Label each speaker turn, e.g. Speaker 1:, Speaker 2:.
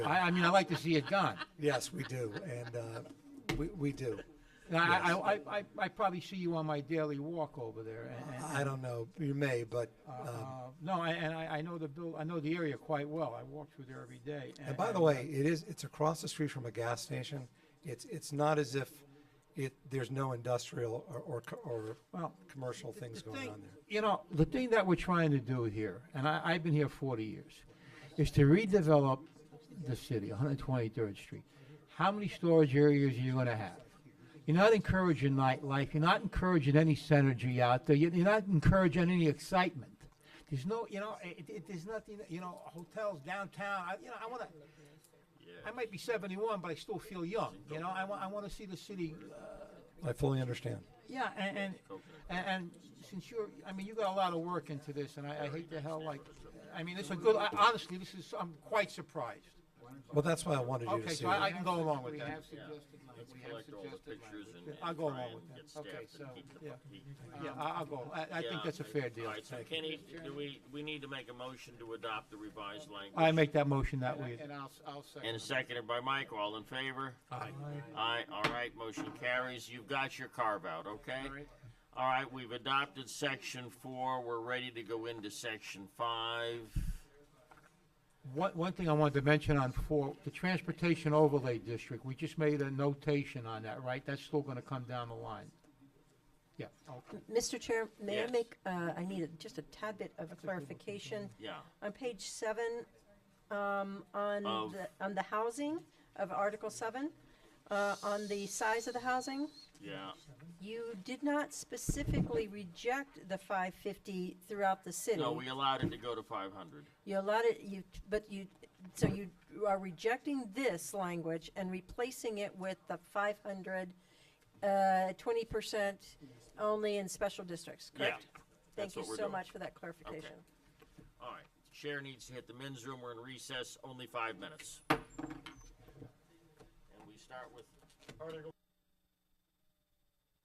Speaker 1: I, I mean, I like to see it gone.
Speaker 2: Yes, we do, and uh, we we do.
Speaker 1: And I, I, I, I, I probably see you on my daily walk over there. And, and,
Speaker 2: I don't know, you may, but, um,
Speaker 1: uh, no, I- and I, I know the bill, I know the area quite well. I walk through there every day. uh,
Speaker 2: and by the way, it is, it's across the street from a gas station. It's, it's not as if it, there's no industrial or, or, co- or
Speaker 1: Well,
Speaker 2: commercial things going on there.
Speaker 1: You know, the thing that we're trying to do here, and I, I've been here 40 years, is to redevelop the city, 123rd Street. How many storage areas are you going to have? You're not encouraging nightlife. You're not encouraging any synergy out there. You're you're not encouraging any excitement. There's no, you know, it, it, there's nothing, you know, hotels downtown. I, you know, I want to. I might be 71, but I still feel young. You know, I want, I want to see the city
Speaker 2: I fully understand.
Speaker 1: yeah, and, and, and, and since you're, I mean, you got a lot of work into this, and I, I hate the hell, like, I mean, this is a good, I- honestly, this is, I'm quite surprised.
Speaker 2: Well, that's why I wanted you to
Speaker 1: Okay,
Speaker 2: see
Speaker 1: so I, I
Speaker 2: it.
Speaker 1: can go along with
Speaker 3: We
Speaker 1: that.
Speaker 3: have suggested, language. we have
Speaker 4: collect all the
Speaker 3: suggested
Speaker 4: pictures
Speaker 3: language.
Speaker 4: and. and
Speaker 1: I'll go
Speaker 4: try
Speaker 1: along
Speaker 4: and
Speaker 1: with that.
Speaker 4: get
Speaker 1: Okay,
Speaker 4: staff to
Speaker 1: so,
Speaker 4: keep the-
Speaker 1: yeah,
Speaker 4: keep-
Speaker 1: yeah, I- I'll go. I, I think
Speaker 4: Yeah,
Speaker 1: that's a fair deal.
Speaker 4: All right, so Kenny, do we, we need to make a motion to adopt the revised language?
Speaker 1: I make that motion that
Speaker 3: And I-
Speaker 1: way.
Speaker 3: And I'll, I'll
Speaker 4: And
Speaker 3: second.
Speaker 4: seconded by Mike, all in favor? Aye. Aye, all right, motion carries, you've got your carve out, okay?
Speaker 3: All right.
Speaker 4: All right, we've adopted section four, we're ready to go into section five.
Speaker 1: One, one thing I wanted to mention on four, the transportation overlay district, we just made a notation on that, right? That's still gonna come down the line. Yeah, okay.
Speaker 5: Mr. Chair, may I
Speaker 4: Yes.
Speaker 5: make, uh, I need a- just a tad bit of clarification.
Speaker 4: Yeah,
Speaker 5: On page seven, um, on
Speaker 4: Of-
Speaker 5: the, on the housing of Article seven, uh, on the size of the housing,
Speaker 4: yeah,
Speaker 5: you did not specifically reject the five fifty throughout the city.
Speaker 4: no, we allowed it to go to five hundred.
Speaker 5: You allowed it, you, but you, so you are rejecting this language and replacing it with the five hundred, uh, twenty percent only in special districts,
Speaker 4: Yeah,
Speaker 5: correct? Thank
Speaker 4: that's
Speaker 5: you
Speaker 4: what we're
Speaker 5: so
Speaker 4: doing.
Speaker 5: much for that clarification.
Speaker 4: All right, chair needs to hit the men's room, we're in recess, only five minutes. And we start with Article